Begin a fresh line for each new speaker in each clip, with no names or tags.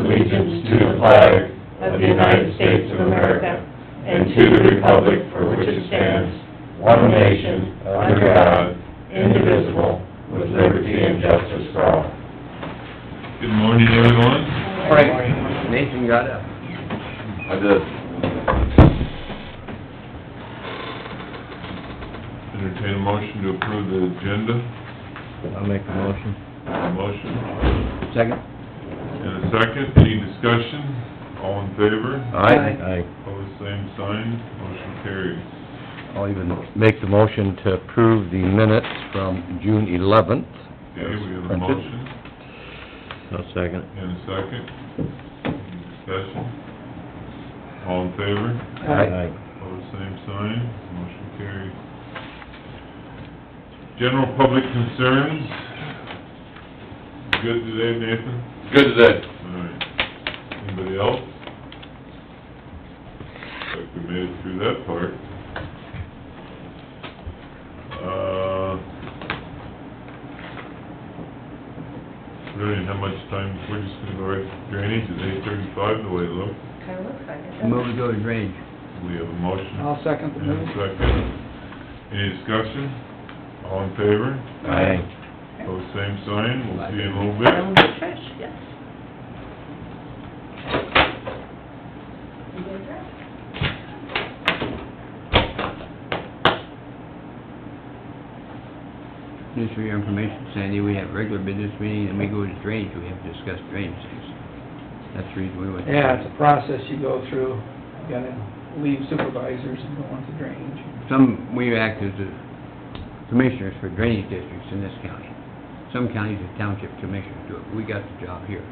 allegiance to the flag of the United States of America and to the republic for which it stands, one nation, under God, indivisible, with liberty and justice for all.
Good morning, everyone.
Frank, Nathan got up.
I did. Entertain a motion to approve the agenda.
I'll make the motion.
A motion
Second?
and a second. Any discussion? All in favor?
Aye.
Opposed, same sign. Motion carries.
I'll even make the motion to approve the minutes from June eleventh.
Okay, we have a motion
No second.
and a second. Any discussion? All in favor?
Aye.
Pose same sign, motion carries. General public concerns, good today, Nathan?
Good today.
All right. Anybody else? Looks Like we made it through that part. Uh, we don't even have much time, we're just gonna go right to drainage, it's eight thirty-five the way it looks.
Kind of looks like it.
Move to go to drainage.
We have a motion.
I'll second the
And a
move.
second. Any discussion? All in favor? Pose same sign, we'll see you in a little
Down
bit.
the trash, yes. You go trash.
Just for your information, Sandy, we have regular business meeting, and we go to drainage, we have to discuss drainage things. That's the reason we went. to
Yeah, it's a process you go through, you gotta leave supervisors and go on to drainage.
Some, we act as the commissioners for drainage districts in this county. Some counties are township commissioners do it, we got the job here,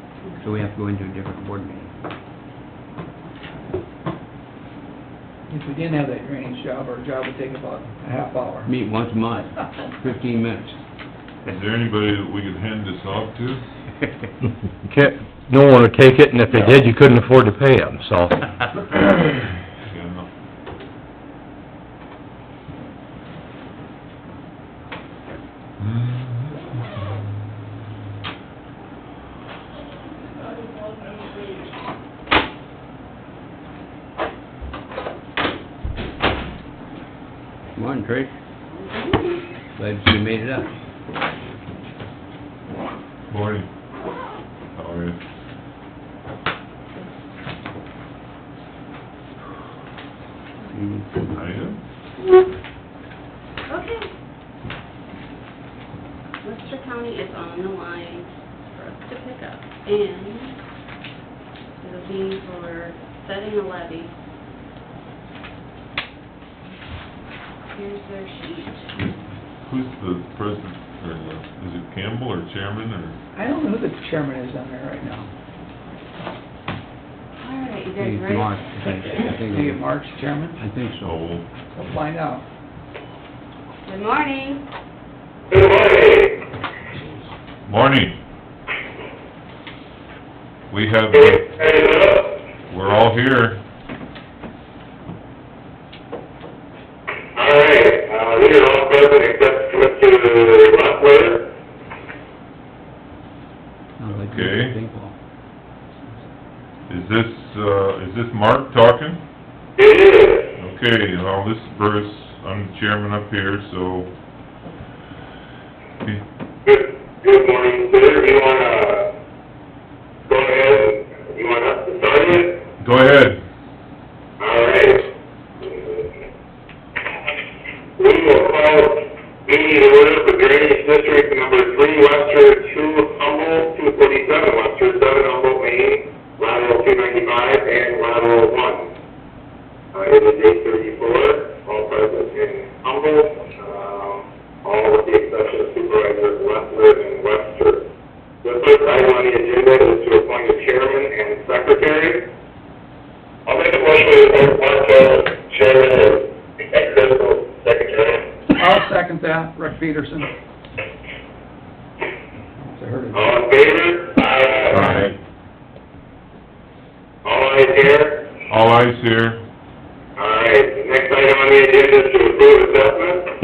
so we have to go into a different board meeting.
If we didn't have that drainage job, our job would take about a half hour.
Meet once a month, fifteen minutes.
Is there anybody that we could hand this off to?
Can't, no one would take it, and if they did, you couldn't afford to pay them, so.
Yeah, no.
Morning, Trish. Glad you made it up.
Morning. How are you? I am.
Okay. Webster County is on the line for us to pick up, and it'll be for setting a levy. Here's their sheet.
Who's the president, or the, is it Campbell or chairman, or?
I don't know who the chairman is on there right now.
All right, you
Hey,
guys
if you want,
ready?
I think- I think-
Maybe Mark's chairman,
I think so.
So,
we'll find out.
Good morning.
morning. We have, we're all here.
Alright, uh, these are all present except Mr. Rottweiler.
Sounds like
Okay.
you're thankful.
Is this, uh, is this Mark talking?
It is.
Okay, well, this is Bruce, I'm the chairman up here, so...
Good, good morning, sir. You wanna go ahead, you want us to sign it?
Go ahead.
All right. We will call meeting to order for drainage district number three, Webster, two Humble, two forty-seven, Webster, seven Humble, Maine, lateral two ninety-five and lateral one. Uh, it is eight thirty-four, all present in Humble, um, all with the exception of supervisors Westler and Webster. The first item on the agenda is to appoint a chairman and secretary. I'll make a motion to appoint Martel chairman and executive secretary.
I'll second that, Rick Peterson. It's a herd of-
All in favor? Aye. All eyes here?
All eyes here.
All right, next item on the agenda is to approve assessment.